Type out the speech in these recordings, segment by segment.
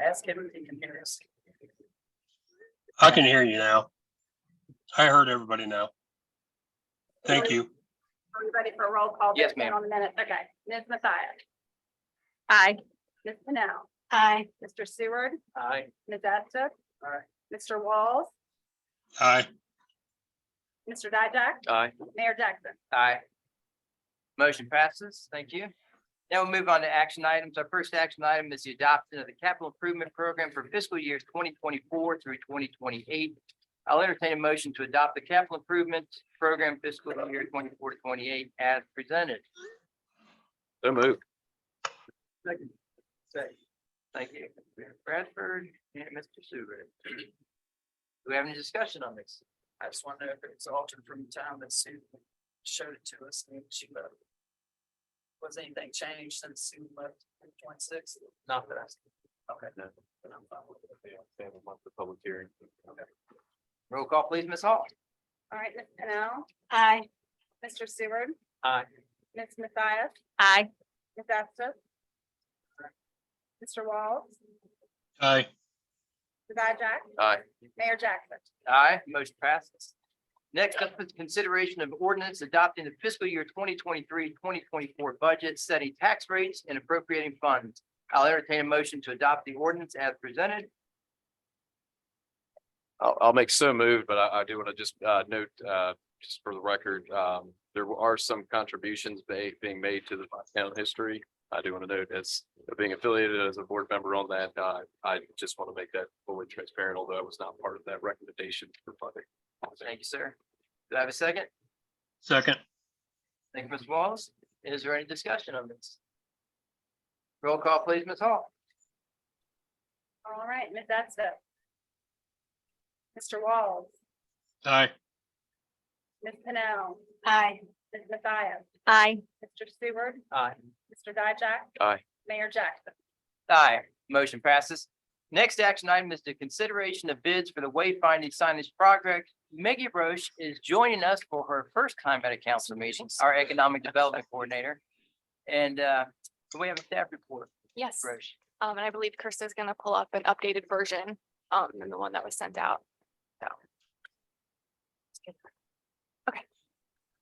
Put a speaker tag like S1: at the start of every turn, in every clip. S1: Ask him if he can hear us.
S2: I can hear you now. I heard everybody now. Thank you.
S3: Are we ready for a roll call?
S1: Yes,
S3: vote
S1: ma'am.
S3: On the minutes, okay. Ms. Mathias? Aye. Ms. Pennell? Aye. Mr. Seward?
S1: Aye.
S3: Ms. Astor?
S1: Aye.
S3: Mr. Walls?
S2: Aye.
S3: Mr. Dijack?
S1: Aye.
S3: Mayor Jackson?
S1: Aye. Motion passes. Thank you. Now we'll move on to action items. Our first action item is the adoption of the capital improvement program for fiscal years twenty twenty-four through twenty twenty-eight. I'll entertain a motion to adopt the capital improvement program fiscal year 24 to 28 as presented.
S4: So moved.
S1: Second. Second. Thank you, Mayor Bradford and Mr. Sewer. Do we have any discussion on this? I just want to know if it's altered from the time that Sue showed it to us and she left. Was anything changed since Sue left in twenty-six? Not that I. see. Okay. Then I'm fine with it.
S4: They have a month of public hearing.
S1: Roll call, please, Ms. Hall.
S3: All right, Ms. Pennell? Aye. Mr. Seward?
S1: Aye.
S3: Ms. Mathias? Aye. Ms. Astor? Mr. Walls?
S2: Aye.
S3: Mr. Dijack?
S1: Aye.
S3: Mayor Jackson?
S1: Aye, motion passes. Next up is consideration of ordinance adopting the fiscal year 2023-2024 budget, setting tax rates and appropriating funds. I'll entertain a motion to adopt the ordinance as presented.
S4: I'll, I'll make so moved, but I, I do want to just, uh, note, uh, just for the record, um, there are some contributions ba- being made to the town history. I do want to note as being affiliated as a board member on that, uh, I just want to make that fully transparent, although I was not part of that recommendation for funding.
S1: Thank you, sir. Do I have a second?
S2: Second.
S1: Thank you, Ms. Wallace. Is there any discussion on this? Roll call, please, Ms. Hall.
S3: All right, Ms. Astor? Mr. Walls?
S2: Aye.
S3: Ms. Pennell. Aye. Ms. Mathias. Aye. Mr. Seward,
S1: Aye.
S3: Mr. Dijack.
S4: Aye.
S3: Mayor Jackson.
S1: Aye, motion passes. Next action item is the consideration of bids for the wayfinding signage project. Maggie Roche is joining us for her first time at a council meeting, our economic development coordinator. And uh, do we have a staff report,
S5: Yes,
S1: Roche.
S5: um, and I believe Kirsta is gonna pull up an updated version, um, than the one that was sent out, so. Okay.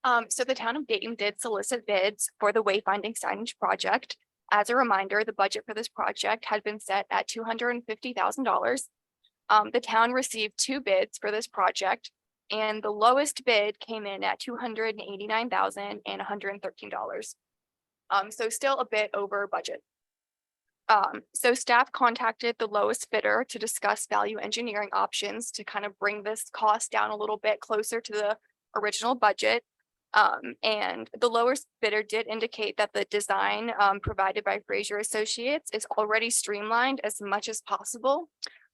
S5: Um, so the town of Dayton did solicit bids for the wayfinding signage project. As a reminder, the budget for this project had been set at two hundred and fifty thousand dollars. Um, the town received two bids for this project, and the lowest bid came in at two hundred and eighty-nine thousand and hundred and thirteen dollars. Um, so still a bit over budget. Um, so staff contacted the lowest bidder to discuss value engineering options to kind of bring this cost down a little bit closer to the original budget. Um, and the lowest bidder did indicate that the design, um, provided by Fraser Associates is already streamlined as much as possible.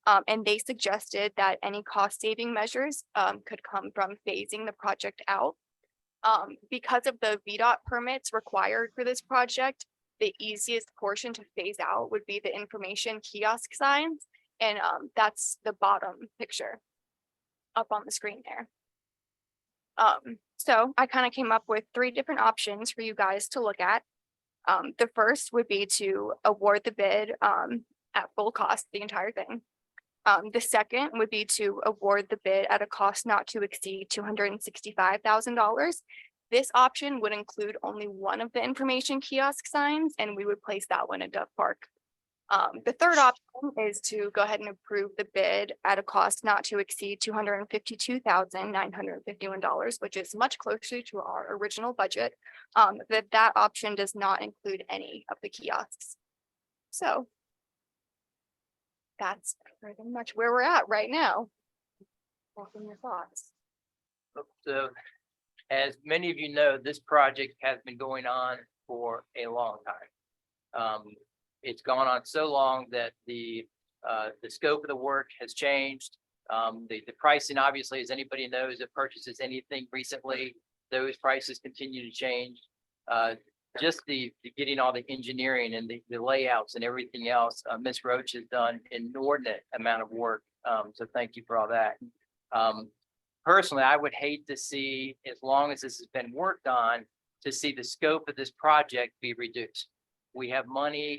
S5: Um, and they suggested that any cost saving measures, um, could come from phasing the project out. Um, because of the VDOT permits required for this project, the easiest portion to phase out would be the information kiosk signs. And um, that's the bottom picture up on the screen there. Um, so I kind of came up with three different options for you guys to look at. Um, the first would be to award the bid um, at full cost, the entire thing. Um, the second would be to award the bid at a cost not to exceed two hundred and sixty-five thousand dollars. This option would include only one of the information kiosk signs, and we would place that one at Dove Park. Um, the third option is to go ahead and approve the bid at a cost not to exceed two hundred and fifty-two thousand nine hundred and fifty-one dollars, which is much closer to our original budget. Um, that that option does not include any of the kiosks. So that's pretty much where we're at right now. Welcome your thoughts.
S1: So as many of you know, this project has been going on for a long time. Um, it's gone on so long that the, uh, the scope of the work has changed. Um, the, the pricing, obviously, as anybody knows that purchases anything recently, those prices continue to change. Uh, just the, the getting all the engineering and the, the layouts and everything else, uh, Ms. Roach has done inordinate amount of work. Um, so thank you for all that. Um, personally, I would hate to see, as long as this has been worked on, to see the scope of this project be reduced. We have money